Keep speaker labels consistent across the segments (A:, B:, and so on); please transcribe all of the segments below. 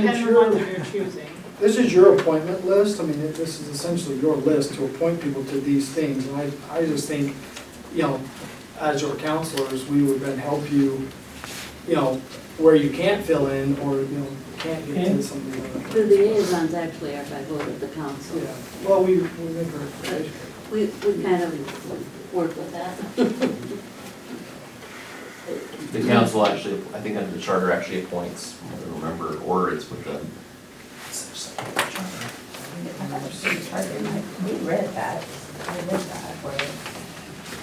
A: depends on
B: sure.
A: what you're choosing.
B: This is your appointment list, I mean, it- this is essentially your list to appoint people to these things, and I, I just think, you know, as your counselors, we would then help you, you know, where you can't fill in, or, you know, can't get to something. like
C: The
B: that.
C: liaisons actually are by vote of the council.
B: Yeah, well, we, we make a recommendation.
C: We, we kind of work with that.
D: The council actually, I think under the charter actually appoints, I don't remember, or it's with the.
E: We read that, we read that, where.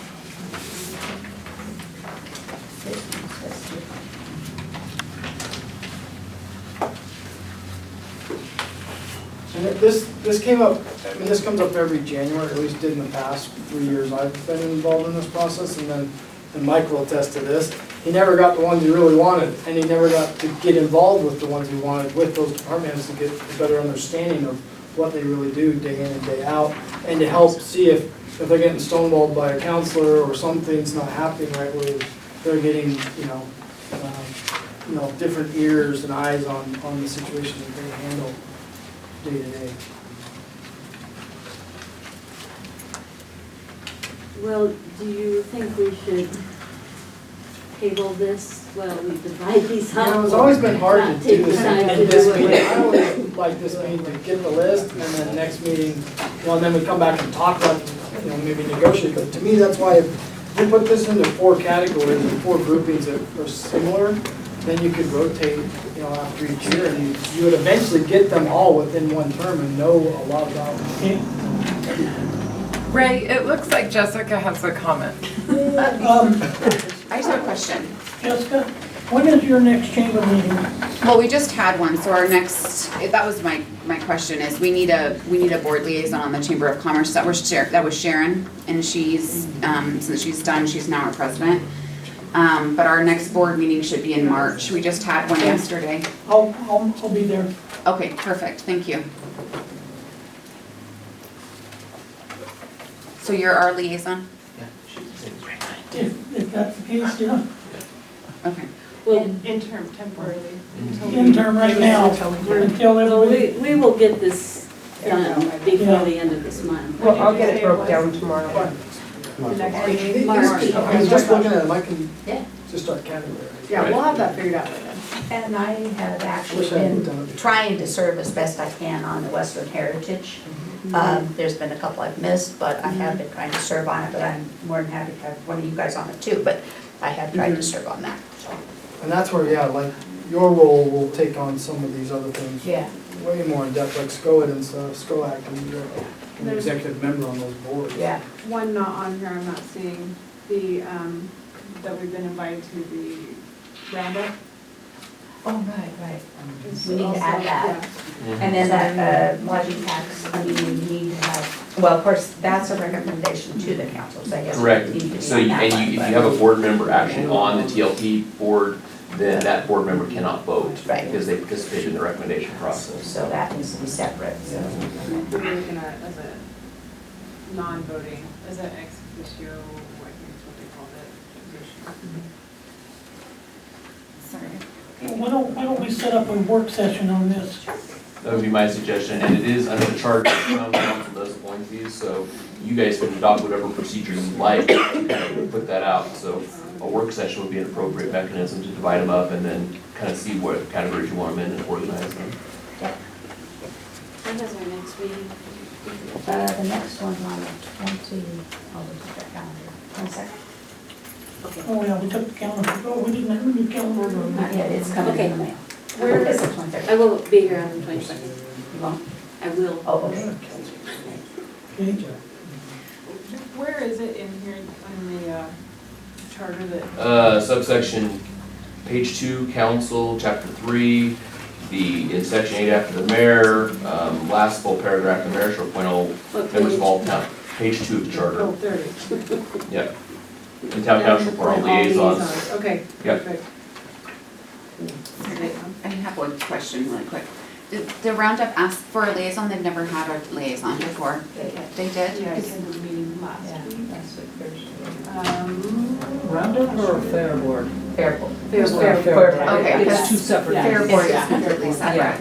B: And it- this, this came up, I mean, this comes up every January, at least did in the past three years I've been involved in this process, and then, and Mike will attest to this. He never got the ones he really wanted, and he never got to get involved with the ones he wanted with those departments to get a better understanding of what they really do day in and day out, and to help see if, if they're getting stonewalled by a counselor or something's not happening right, where they're getting, you know, um, you know, different ears and eyes on, on the situation that they handle day to day.
C: Well, do you think we should table this while we divide these
B: You
C: up?
B: know, it's always been hard to
C: Not
B: do
C: take the
B: this,
C: time to
B: in this
C: do it.
B: meeting, I always like this meeting to get the list, and then next meeting, well, and then we come back and talk about, you know, maybe negotiate, but to me, that's why if you put this into four categories, and four groupings that are similar, then you could rotate, you know, after each year, and you- you would eventually get them all within one term and know a lot about.
F: Ray, it looks like Jessica has a comment.
G: Um,
E: I just have a question.
G: Jessica, when is your next chamber meeting?
E: Well, we just had one, so our next, that was my, my question is, we need a, we need a board liaison on the Chamber of Commerce, that was Sharon, that was Sharon, and she's, um, since she's done, she's now our president. Um, but our next board meeting should be in March, we just had one yesterday.
G: I'll,
H: Um,
G: I'll, I'll be there.
E: Okay, perfect, thank you. So you're our liaison?
G: If, if that's the case, yeah.
E: Okay.
C: Well,
A: Interim temporarily. until we-
G: Mm-hmm. Interim right now,
A: Until we-
G: until
C: well,
G: everybody,
C: we, we will get this done before the end of this month.
I: Well, I'll get it broke down tomorrow.
B: These-
C: March.
B: these- I was just looking at them, I can
C: Yeah.
B: just start categorizing.
I: Yeah, we'll have that figured out by then.
H: And I have actually
B: Wish I had
H: been
B: done it.
H: trying to serve as best I can on the Western Heritage.
B: Mm-hmm.
H: Um, There's been a couple I've missed, but I have been trying to serve on it, but I'm more than happy to have one of you guys on it too, but I have tried
B: Mm-hmm.
H: to serve on that, so.
B: And that's where, yeah, like, your role will take on some of these other things way more in depth, like SCOAD and stuff, SCOAC, and you're an executive member on those boards.
H: Yeah,
A: One not on here, I'm not seeing, the, um, that we've been invited to the roundup.
H: oh, right, right.
B: Um,
A: is
H: We need to
A: also-
H: add that.
A: yeah.
H: And then that uh, lodging tax, I mean, you need to have, well, of course, that's a recommendation to the council, so I guess. we need to be
D: Correct, so
H: on
D: you-
H: that
D: and
H: one,
D: you, if
H: but-
D: you have a board member actually on the TLT board, then that board member cannot vote
H: Right.
D: because they participated in the recommendation process.
H: So that needs to be separate, so.
A: We're looking at as a non-voting, as an ex officio, I think is what they called it, position.
E: Sorry.
G: Well, why don't, why don't we set up a work session on this?
D: That would be my suggestion, and it is under the charter, the town council does appoint these, so you guys can adopt whatever procedure you like, to kind of put that out, so a work session would be an appropriate mechanism to divide them up and then kind of see what categories you want them in and organize them.
C: When is our next meeting?
H: Uh, the next one on the twenty, I'll look at that calendar, one second.
G: Oh, yeah, we took the calendar, oh, we didn't have a new
H: Not
G: calendar.
H: yet, it's coming in the mail.
C: Where-
H: It's the twenty-third.
C: I will be here on the twenty-second.
H: You won't?
C: I will.
H: Oh, okay.
G: Okay.
A: Where is it in here on the uh, charter that
D: Uh, subsection, page two, council, chapter three, the, in section eight after the mayor, um, last full paragraph, the mayor shall appoint all
C: What
D: members of
C: page?
D: all town, page two of the
A: Oh,
D: charter,
A: there it is.
D: yep. The town council for all liaisons,
A: Liaisons, Okay.
D: Yep.
A: perfect.
E: I have one question really quick. Did the Roundup ask for a liaison? They've never had a liaison before. They did?
A: Yeah, I attended the meeting last week. Um,
B: Roundup or fair board?
H: Fair.
C: Fair
I: Fair
C: board.
I: board.
E: Okay.
I: It's two separate.
E: Fair
I: things.
E: Board is completely separate.